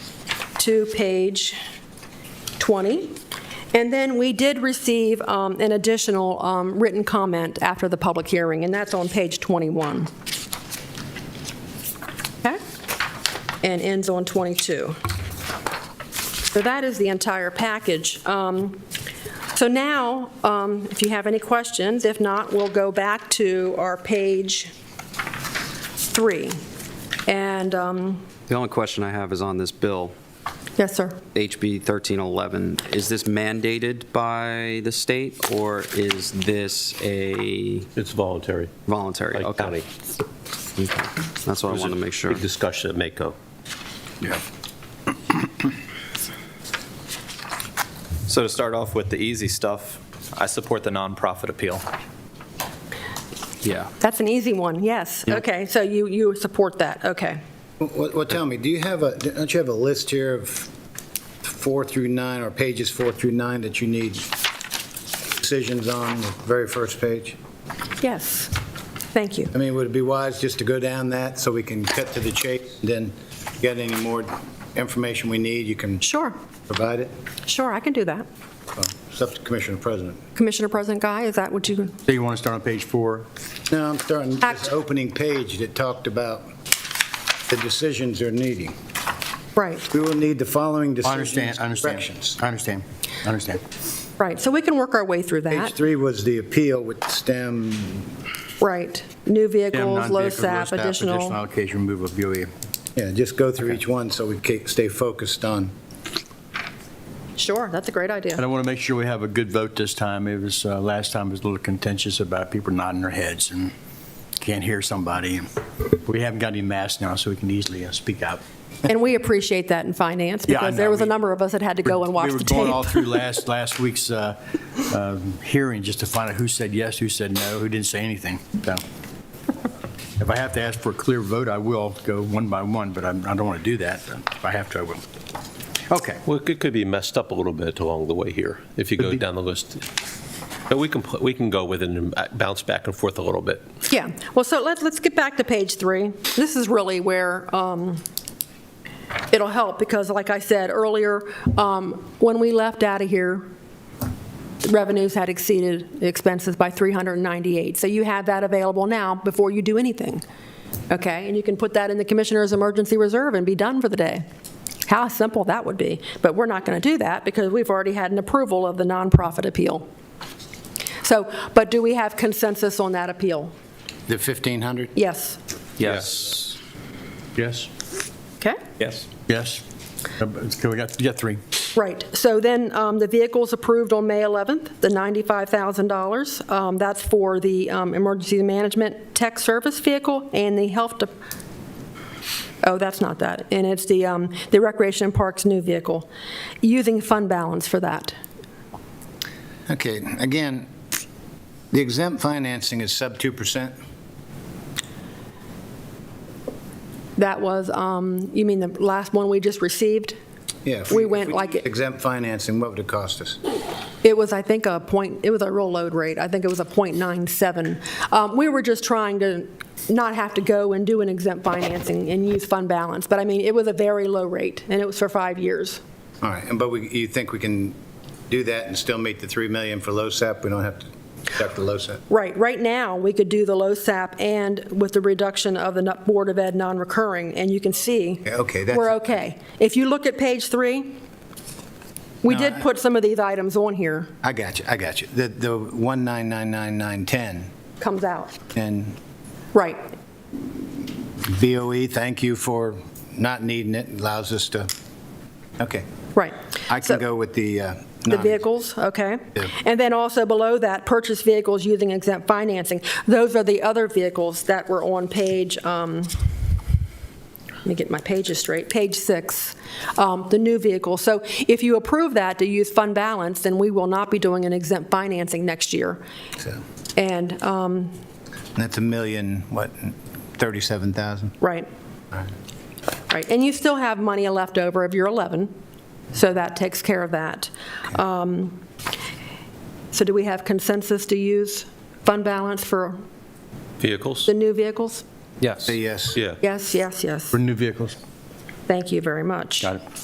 to page 20. And then we did receive um, an additional um, written comment after the public hearing, and that's on page 21. Okay? And ends on 22. So that is the entire package. Um, So now, um, if you have any questions, if not, we'll go back to our page three. And, um, The only question I have is on this bill, yes, sir. HB 1311. Is this mandated by the state, or is this a It's voluntary. voluntary? Like Okay. county. Okay. That's what I wanted to make sure. Big discussion at Mako. So to start off with the easy stuff, I support the nonprofit appeal. Yeah. That's an easy one, yes. Okay, so you, you support that, okay. Well, well, tell me, do you have a, don't you have a list here of four through nine, or pages four through nine that you need decisions on, the very first page? Yes, thank you. I mean, would it be wise just to go down that so we can cut to the chase, then get any more information we need, you can Sure, provide it? sure, I can do that. Well, It's up to Commissioner President. Commissioner President Guy, is that what you, So you want to start on page four? No, I'm starting this Act- opening page that talked about the decisions they're needing. right, We will need the following I decisions. understand, I understand. corrections. I understand, I understand. right. So we can work our way through Page that. three was the appeal with STEM Right. New Stem, vehicles, low non-vehicle, SAP, Additional additional. allocation, remove of E. BOE. Yeah, just go through each one so we ca- stay focused on. Sure, that's a great And I idea. want to make sure we have a good vote this time. It was, uh, last time was a little contentious about people nodding their heads and can't hear somebody. We haven't got any masks now, so we can easily uh, speak out. And we appreciate that in finance Yeah, I because there know, was a we- number of us that had to go and watch the We were going all tape. through last, last week's uh, um, hearing just to find out who said yes, who said no, who didn't say anything. So if I have to ask for a clear vote, I will go one by one, but I'm- I don't want to do that. If I have to, I will. Okay. Well, it could- could be messed up a little bit along the way here, if you go down the list. But we can, put- we can go with it and bounce back and forth a little bit. Yeah, well, so let's, let's get back to page three. This is really where um, it'll help because like I said earlier, um, when we left out of here, revenues had exceeded expenses by 398. So you have that available now before you do anything, okay? And you can put that in the commissioner's emergency reserve and be done for the day. How simple that would be. But we're not going to do that because we've already had an approval of the nonprofit appeal. So, but do we have consensus on that appeal? The 1,500? Yes. Yes. Yes? Okay. Yes. Yes. Uh, but- We got, you got three. Right. So then um, the vehicle's approved on May 11th, the $95,000. Um, That's for the um, emergency management tech service vehicle and the health, de- oh, that's not that. And it's the um, the Recreation and Parks new vehicle, using fund balance for that. Okay, again, the exempt financing is sub 2%? That was, um, you mean the last one we just received? Yeah. if We if went like it- Exempt financing, what would it cost us? It was, I think, a point, it was a real load rate. I think it was a .97. Um, We were just trying to not have to go and do an exempt financing and use fund balance. But I mean, it was a very low rate, and it was for five years. All right, and but we- you think we can do that and still meet the 3 million for LoSAP? We don't have to deduct the LoSAP? Right, right now, we could do the low SAP and with the reduction of the nu- Board of Ed non-recurring, and you can see. Yeah, okay, that's- We're okay. If you look at page three, we No, did I- put some of these items on here, I got you, I got you. The the 1999910 comes out. and Right, BOE, thank you for not needing it, allows us to, okay. right. I So- can go with the. uh, The non- vehicles, okay. Yeah. And then also below that, purchase vehicles using exempt financing. Those are the other vehicles that were on page, um, let me get my pages straight, page six, um, the new vehicle. So if you approve that to use fund balance, then we will not be doing an exempt financing next year. so. And, um, That's a million, what, 37,000? right, right. And you still have money left over of your 11, so that takes care of that. Um, So do we have consensus to use fund balance for Vehicles? The new vehicles? Yes. Yes. Yeah. Yes, yes, yes. For new vehicles. Thank you very much. Got it.